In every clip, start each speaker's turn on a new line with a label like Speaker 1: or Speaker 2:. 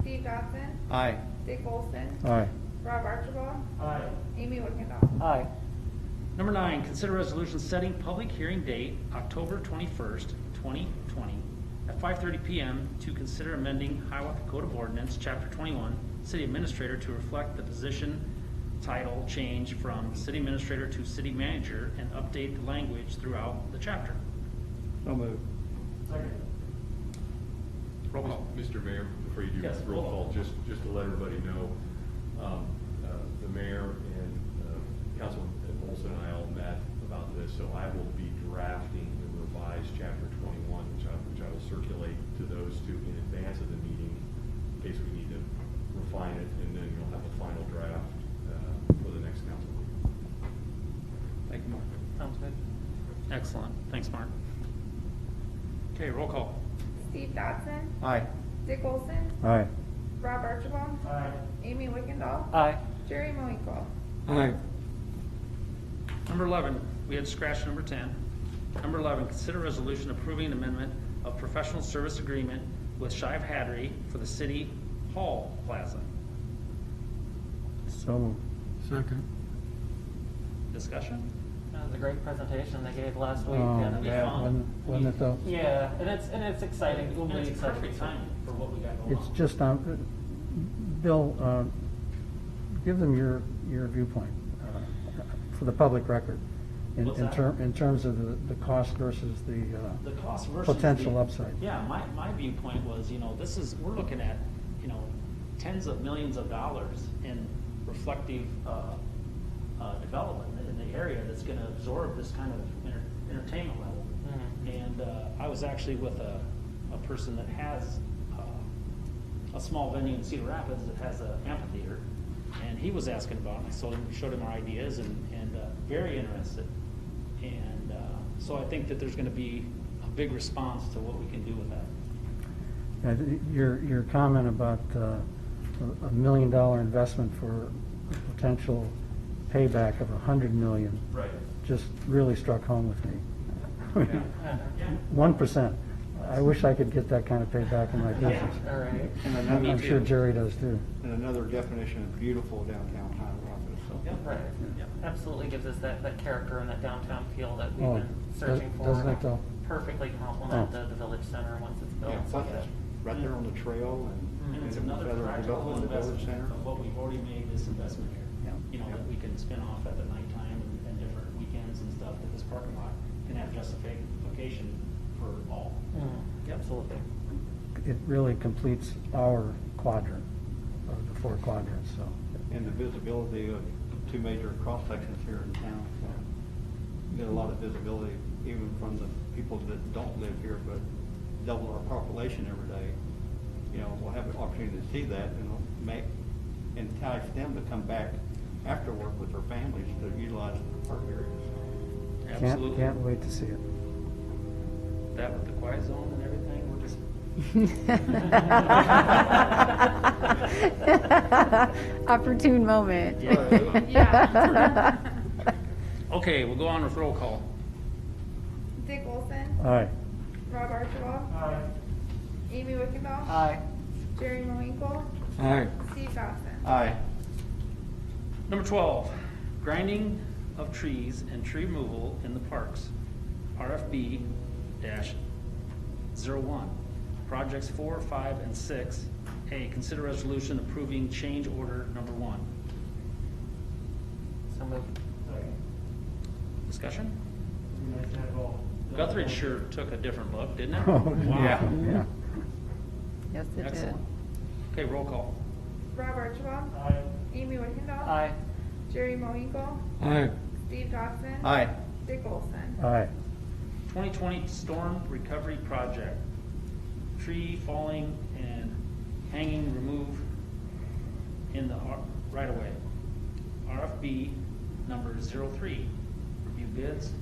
Speaker 1: Steve Dodson,
Speaker 2: Aye.
Speaker 1: Dick Olson,
Speaker 2: Aye.
Speaker 1: Rob Archibald,
Speaker 3: Aye.
Speaker 1: Amy Wickendall.
Speaker 2: Aye.
Speaker 3: Number nine, consider resolution setting public hearing date, October 21st, 2020, at 5:30 PM to consider amending Hiawatha Code of Ordinance, Chapter 21, City Administrator to reflect the position title change from City Administrator to City Manager and update the language throughout the chapter.
Speaker 2: So moved.
Speaker 3: Roll call.
Speaker 4: Mr. Mayor, before you do
Speaker 3: Yes,
Speaker 4: roll
Speaker 3: roll
Speaker 4: call,
Speaker 3: call.
Speaker 4: just, just to let everybody know, um, uh, the mayor and uh, Councilman Olson and I all met about this, so I will be drafting the revised chapter twenty-one, which I, which I will circulate to those two in advance of the meeting, in case we need to refine it, and then you'll have a final draft uh, for the next council meeting.
Speaker 3: Thank you, Mark. Sounds good. Excellent. Thanks, Mark. Okay, roll call.
Speaker 1: Steve Dodson,
Speaker 2: Aye.
Speaker 1: Dick Olson,
Speaker 2: Aye.
Speaker 1: Rob Archibald, Amy Wickendall,
Speaker 2: Aye.
Speaker 1: Jerry Moinkle.
Speaker 2: Aye.
Speaker 3: Number 11, we had scratched number 10. Number 11, consider resolution approving amendment of professional service agreement with Shive Hattery for the City Hall Plaza.
Speaker 2: So moved.
Speaker 5: Second.
Speaker 3: Discussion?
Speaker 6: That was a great presentation they gave last week. and
Speaker 2: Oh,
Speaker 6: it's-
Speaker 2: yeah, wasn't wasn't it though?
Speaker 6: Yeah, and it's, and it's exciting. It will
Speaker 3: And
Speaker 6: be
Speaker 3: it's
Speaker 6: exciting.
Speaker 3: perfect timing for what we got going on.
Speaker 2: It's just, um, Bill, uh, give them your, your viewpoint uh, for the public record. in-
Speaker 3: What's
Speaker 2: in
Speaker 3: that?
Speaker 2: term- In terms of the, the cost versus the, uh,
Speaker 3: the cost versus.
Speaker 2: Potential
Speaker 3: the-
Speaker 2: upside.
Speaker 3: Yeah, my, my viewpoint was, you know, this is, we're looking at, you know, tens of millions of dollars in reflective, uh, uh, development in the area that's gonna absorb this kind of enter- entertainment level.
Speaker 6: Mhm.
Speaker 3: And, uh, I was actually with a, a person that has, uh, a small venue in Cedar Rapids that has an amphitheater. And he was asking about it, I showed him, showed him our ideas and, and, uh, very interested. And uh, so I think that there's going to be a big response to what we can do with that.
Speaker 2: I thi- Your, your comment about uh, a a million dollar investment for a potential payback of a hundred million
Speaker 4: Right.
Speaker 2: just really struck home with me. One percent. I wish I could get that kind of payback in my business.
Speaker 6: All right.
Speaker 7: And
Speaker 2: I'm I'm sure
Speaker 7: another,
Speaker 2: Jerry does too.
Speaker 7: and another definition of beautiful downtown Hiawatha, so.
Speaker 6: Right.
Speaker 3: Yeah.
Speaker 6: Absolutely gives us that, that character and that downtown feel that
Speaker 2: Oh,
Speaker 6: we've been
Speaker 2: does-
Speaker 6: searching for.
Speaker 2: doesn't
Speaker 6: and
Speaker 2: it though?
Speaker 6: Perfectly
Speaker 2: Oh.
Speaker 6: complement the, the village center once it's built.
Speaker 7: Yeah,
Speaker 6: So
Speaker 7: but that's right there on the trail and.
Speaker 3: And Mm-hmm. it's
Speaker 7: and
Speaker 3: another
Speaker 7: feather
Speaker 3: practical
Speaker 7: development, the village
Speaker 3: investment
Speaker 7: center.
Speaker 3: of what we've already made this investment here.
Speaker 7: Yeah.
Speaker 3: You know, that we can spin off at the nighttime and- and different weekends and stuff, that this parking lot can have justification for all.
Speaker 6: Mm, Absolutely.
Speaker 2: It really completes our quadrant, of the four quadrants, so.
Speaker 7: And the visibility of two major cross sections here in town, so. Get a lot of visibility even from the people that don't live here, but double our population every day. You know, we'll have an opportunity to see that and it'll make, entice them to come back after work with their families to utilize the park areas.
Speaker 2: can't- Can't wait to see it.
Speaker 3: That with the quiet zone and everything, we're just.
Speaker 8: Opportune moment.
Speaker 3: Yeah.
Speaker 1: Yeah.
Speaker 3: Okay, we'll go on with roll call.
Speaker 1: Dick Olson,
Speaker 2: All right.
Speaker 1: Rob Archibald. Amy Wickendall. Jerry Moinkle,
Speaker 2: All right.
Speaker 1: Steve Dodson.
Speaker 7: Aye.
Speaker 3: Number 12, grinding of trees and tree removal in the parks, RFB-01. Projects 4, 5, and 6. A, consider resolution approving change order number 1.
Speaker 6: Mm. So moved.
Speaker 3: Discussion? Guthrie sure took a different look, didn't it?
Speaker 2: Oh,
Speaker 3: Wow.
Speaker 2: yeah,
Speaker 8: Yes, it did.
Speaker 3: Excellent. Okay, roll call.
Speaker 1: Rob Archibald. Amy Wickendall.
Speaker 6: Aye.
Speaker 1: Jerry Moinkle,
Speaker 2: yeah. All right.
Speaker 1: Steve Dodson. Dick Olson.
Speaker 2: All right.
Speaker 3: 2020 Storm Recovery Project, tree falling and hanging remove in the r- right-of-way. RFB number 03, review bids.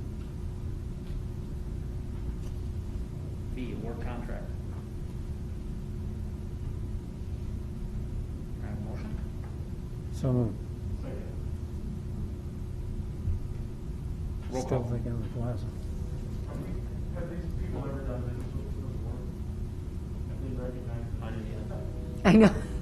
Speaker 3: B, award contract. Can I Have a motion?
Speaker 2: So moved.
Speaker 3: Roll
Speaker 2: Still
Speaker 3: call.
Speaker 2: thinking of the plaza.
Speaker 9: Have these people ever done business with the board? Have they recognized?
Speaker 3: I didn't either.
Speaker 8: I know.